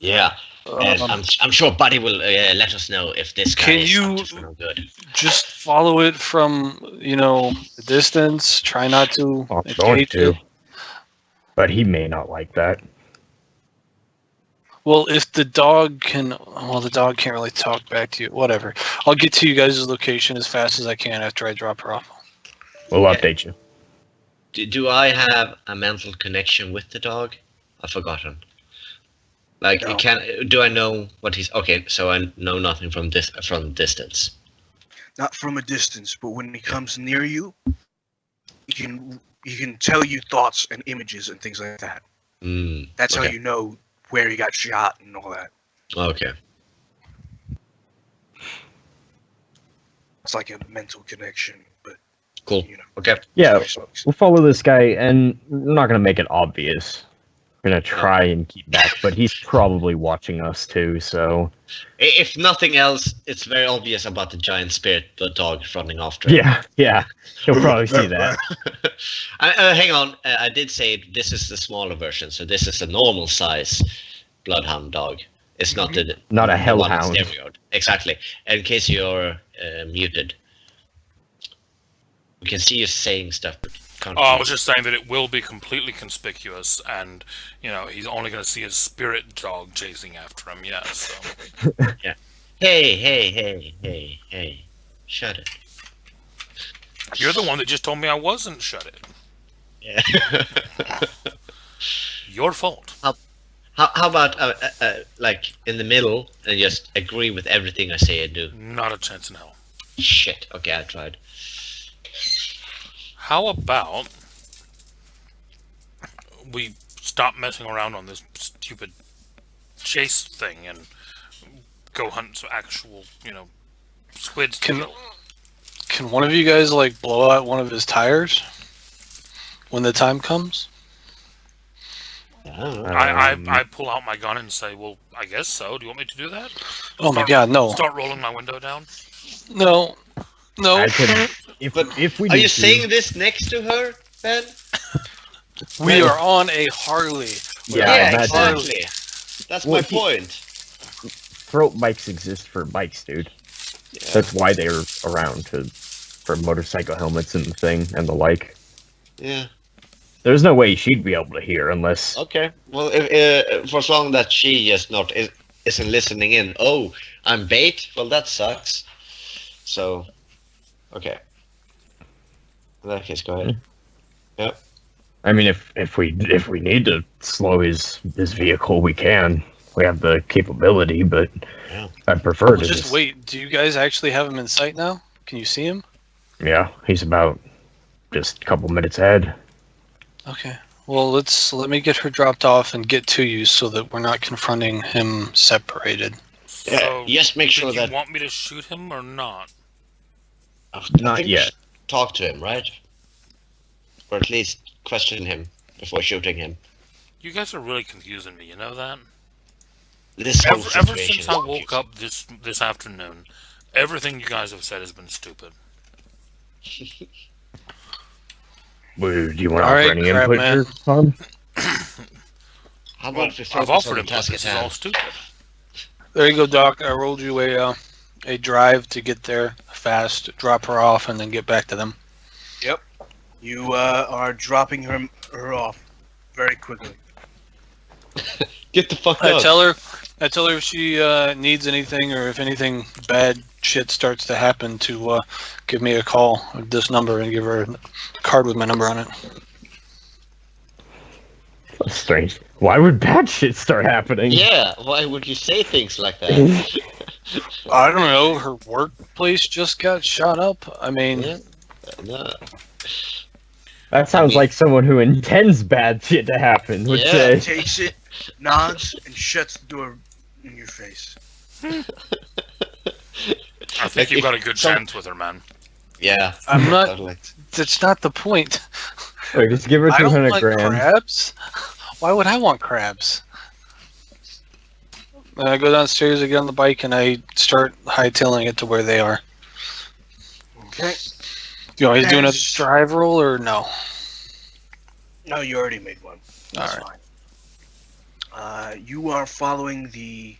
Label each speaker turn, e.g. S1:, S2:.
S1: Yeah, and
S2: Um,
S3: Um,
S1: I'm, I'm sure Buddy will uh, let us know if this guy
S2: Can
S1: is
S2: you-
S1: up to no good.
S2: just follow it from you know a distance. Try not to.
S3: Oh, I'm
S2: engage
S3: going to.
S2: it.
S3: But he may not like that.
S2: Well, if the dog can, well, the dog can't really talk back to you. Whatever. I'll get to you guys' location as fast as I can after I drop her off.
S3: We'll
S1: Okay.
S3: update you.
S1: Do, do I have a mental connection with the dog? I've forgotten. Like,
S2: No.
S1: it can do I know what he's okay? So I know nothing from this from distance.
S4: not from a distance, but when he comes near you, he can he can tell you thoughts and images and things like that.
S1: Mm,
S4: That's how
S1: Okay.
S4: you know where he got shot and all that.
S1: okay.
S4: It's like a mental connection, but
S1: Cool.
S4: you know,
S1: Okay.
S3: Yeah,
S4: voice folks.
S3: we'll follow this guy, and we're not gonna make it obvious. We're gonna try and keep back, but he's probably watching us too. So
S1: I- If nothing else, it's very obvious about the giant spirit, the dog running after. him.
S3: yeah, yeah, he'll probably see that.
S1: I, uh, hang on, uh, I did say this is the smaller version, so this is the normal size bloodhound dog. It's not the
S3: Not a
S1: the one that's
S3: hellhound.
S1: stereoed. Exactly. In case you're uh, muted, we can see you saying stuff. but can't
S5: Oh, I
S1: read.
S5: was just saying that it will be completely conspicuous, and you know he's only going to see his spirit dog chasing after him. Yeah, so
S1: Hey, hey, hey, hey, hey! Shut it.
S5: you're the one that just told me I wasn't. Shut it.
S1: Yeah.
S5: Your fault.
S1: how, how about uh, uh, uh, like in the middle and just agree with everything I say and do?
S5: Not a chance in hell.
S1: Shit. Okay, I tried.
S5: How about we stop messing around on this stupid chase thing and go hunt some actual, you know, squids? to
S2: Can-
S5: kill?
S2: Can one of you guys like blow out one of his tires when the time comes?
S1: Yeah.
S5: I,
S3: Um,
S5: I I pull out my gun and say, "Well, I guess so. Do you want me to do that?"
S2: Oh my God, no,
S5: Start rolling my window down.
S2: no, no.
S3: I could, if,
S1: But
S3: if we
S1: Are
S3: need
S1: you
S3: to-
S1: saying this next to her, Ben?
S2: We are on a Harley.
S3: yeah,
S2: Yeah,
S3: that's-
S2: exactly.
S1: That's
S3: Well,
S1: my
S3: he-
S1: point.
S3: throat bikes exist for bikes, dude. That's why they're around to for motorcycle helmets and the thing and the like.
S1: Yeah.
S3: There's no way she'd be able to hear unless
S1: Okay. Well, if, uh, for as long that she is not is, isn't listening in. Oh, I'm bait. Well, that sucks. So, okay. In that case, go ahead.
S3: I mean if if we if we need to slow his his vehicle we can. We have the capability, but
S1: Yeah.
S3: I prefer to
S2: Just wait. Do you guys actually have him in sight now? Can you see him?
S3: Yeah, he's about just a couple minutes ahead.
S2: Okay. Well, let's let me get her dropped off and get to you so that we're not confronting him separated.
S1: Yeah.
S5: So,
S1: Just make
S5: do
S1: sure
S5: you
S1: that
S5: want me to shoot him or not?
S1: I
S3: Not
S1: think we
S3: yet.
S1: should Talk to him, right? Or at least question him before shooting him.
S5: You guys are really confusing me. You know that.
S1: This whole
S5: Ever, ever
S1: situation
S5: since
S1: is
S5: I woke
S1: confusing.
S5: up this this afternoon, everything you guys have said has been stupid.
S3: Woo, Do you want to
S2: All
S3: offer
S2: right,
S3: any
S2: crap,
S3: input
S2: man.
S3: here, Tom?
S1: How about
S5: Well,
S1: if we focus
S5: I've offered
S1: on
S5: him
S1: the task
S5: this
S1: at
S5: is
S1: hand?
S5: all stupid.
S2: There you go, Doc. I rolled you a uh, a drive to get there fast, drop her off, and then get back to them.
S4: You uh, are dropping her her off very quickly.
S1: Get the fuck
S2: I
S1: out.
S2: tell her, I tell her if she uh, needs anything or if anything bad shit starts to happen, to uh, give me a call at this number and give her a card with my number on it.
S3: That's strange. Why would bad shit start happening?
S1: yeah, why would you say things like that?
S2: I don't know. Her workplace just got shot up. I mean,
S1: Yeah. no.
S3: That sounds like someone who intends bad shit to happen would
S1: Yeah.
S3: say.
S4: Takes it, nods, and shuts the door in your face.
S5: I think you've got a good
S1: Some-
S5: chance with her, man.
S1: Yeah.
S2: I'm not.
S1: totally.
S2: That's not the point.
S3: Or just give her
S2: I
S3: two
S2: don't
S3: hundred
S2: like
S3: grand.
S2: crabs. Why would I want crabs? And I go downstairs, I get on the bike, and I start hightailing it to where they are.
S4: Okay.
S2: You want me to do another
S4: Yes.
S2: drive roll or no? All
S4: No, you already made one. That's
S2: right.
S4: fine. Uh, you are following the